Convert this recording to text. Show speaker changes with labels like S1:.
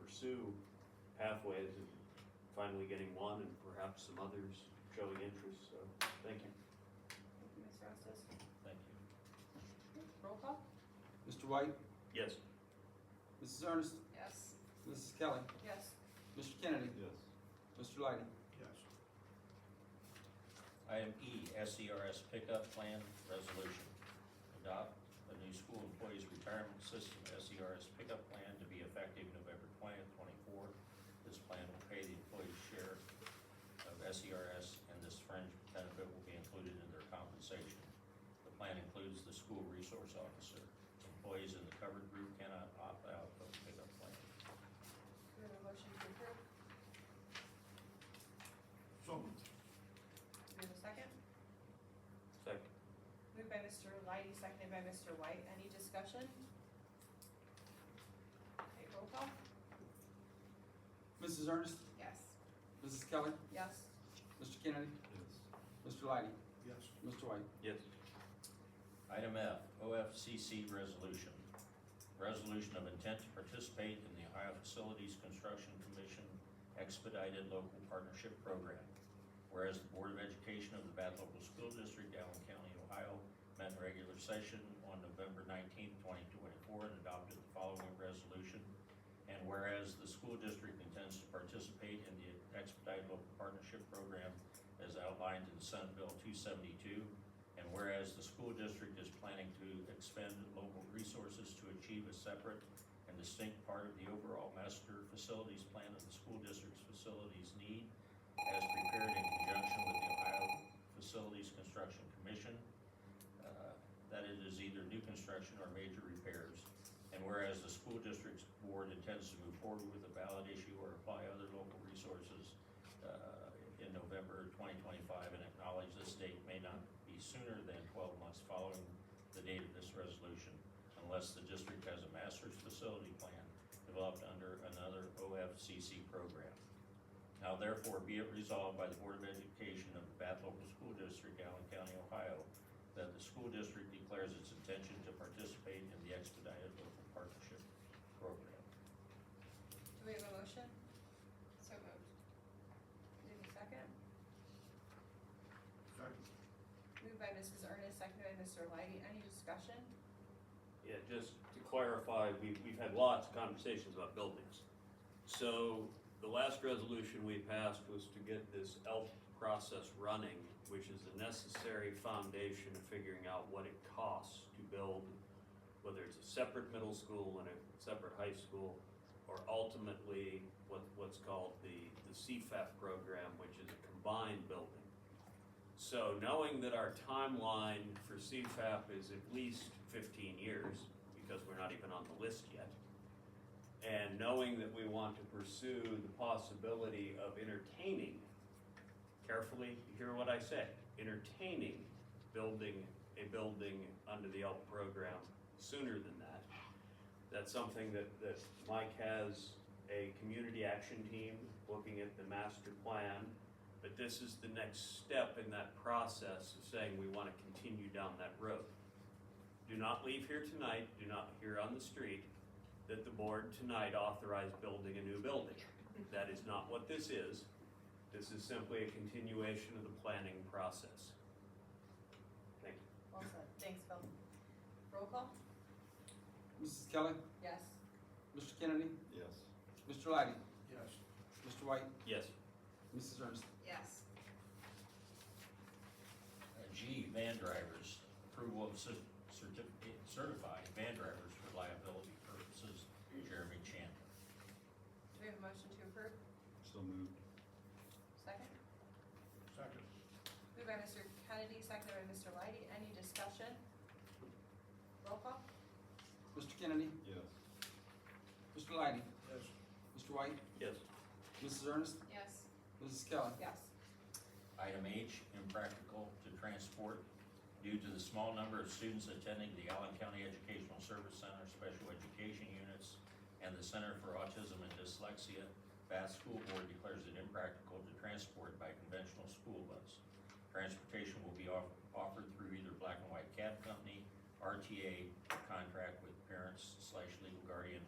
S1: pursue pathways and finally getting one and perhaps some others showing interest, so thank you.
S2: Thank you, Ms. Rastos.
S3: Thank you.
S2: Roll call?
S4: Mr. White,
S1: Yes.
S4: Mrs. Ernest,
S2: Yes.
S4: Mrs. Kelly,
S2: Yes.
S4: Mr. Kennedy,
S3: Yes.
S4: Mr. Lighty.
S5: yes.
S3: Item E, SERS pickup plan resolution. Adopt the new school employees retirement system SERS pickup plan to be effective November twentieth, twenty-four. This plan will pay the employee's share of SERS and this fringe benefit will be included in their compensation. The plan includes the school resource officer. Employees in the covered group cannot opt out of the pickup plan.
S2: Do we have a motion to approve?
S5: So moved.
S2: Do we have a second?
S1: Second.
S2: Moved by Mr. Lighty, seconded by Mr. White. Any discussion? Okay, roll call?
S4: Mrs. Ernest,
S2: Yes.
S4: Mrs. Kelly,
S2: Yes.
S4: Mr. Kennedy,
S1: Yes.
S4: Mr. Lighty,
S5: Yes.
S4: Mr. White.
S1: Yes.
S3: Item F, OFCC resolution. Resolution of intent to participate in the Ohio Facilities Construction Commission expedited local partnership program. Whereas the Board of Education of the Bath Local School District, Allen County, Ohio, met in regular session on November nineteenth, twenty twenty-four, and adopted the following resolution. And whereas the school district intends to participate in the expedited local partnership program as outlined in Senate Bill two seventy-two, and whereas the school district is planning to expend local resources to achieve a separate and distinct part of the overall master facilities plan of the school district's facilities need as prepared in conjunction with the Ohio Facilities Construction Commission, uh, that it is either new construction or major repairs. And whereas the school district's board intends to move forward with a valid issue or apply other local resources uh, in November twenty twenty-five and acknowledge this date may not be sooner than twelve months following the date of this resolution unless the district has a master's facility plan developed under another OFCC program. Now therefore be it resolved by the Board of Education of the Bath Local School District, Allen County, Ohio, that the school district declares its intention to participate in the expedited local partnership program.
S2: Do we have a motion? So moved. Do we have a second?
S5: Second.
S2: Moved by Mrs. Ernest, seconded by Mr. Lighty. Any discussion?
S1: Yeah, just to clarify, we, we've had lots of conversations about buildings. So the last resolution we passed was to get this ELF process running, which is the necessary foundation of figuring out what it costs to build, whether it's a separate middle school and a separate high school, or ultimately what, what's called the, the CFAP program, which is a combined building. So knowing that our timeline for CFAP is at least fifteen years, because we're not even on the list yet, and knowing that we want to pursue the possibility of entertaining, carefully hear what I say, entertaining building a building under the ELP program sooner than that. That's something that, that Mike has a community action team looking at the master plan. But this is the next step in that process of saying we want to continue down that road. Do not leave here tonight, do not hear on the street that the board tonight authorized building a new building. That is not what this is. This is simply a continuation of the planning process. Thank you.
S2: Well said. Thanks, Bill. Roll call?
S4: Mrs. Kelly,
S2: Yes.
S4: Mr. Kennedy,
S3: Yes.
S4: Mr. Lighty,
S5: Yes.
S4: Mr. White,
S1: Yes.
S4: Mrs. Ernest.
S2: Yes.
S3: Uh, G, van drivers, approval of cer- certificate, certified van drivers for liability purposes, Jeremy Chandler.
S2: Do we have a motion to approve?
S3: So moved.
S2: Second?
S5: Second.
S2: Moved by Mr. Kennedy, seconded by Mr. Lighty. Any discussion? Roll call?
S4: Mr. Kennedy,
S3: Yes.
S4: Mr. Lighty,
S5: Yes.
S4: Mr. White,
S1: Yes.
S4: Mrs. Ernest,
S2: Yes.
S4: Mrs. Kelly,
S2: Yes.
S3: Item H, impractical to transport due to the small number of students attending the Allen County Educational Service Center Special Education Units and the Center for Autism and Dyslexia, Bath School Board declares it impractical to transport by conventional school bus. Transportation will be off- offered through either Black and White Cab Company, RTA contract with parents slash legal guardian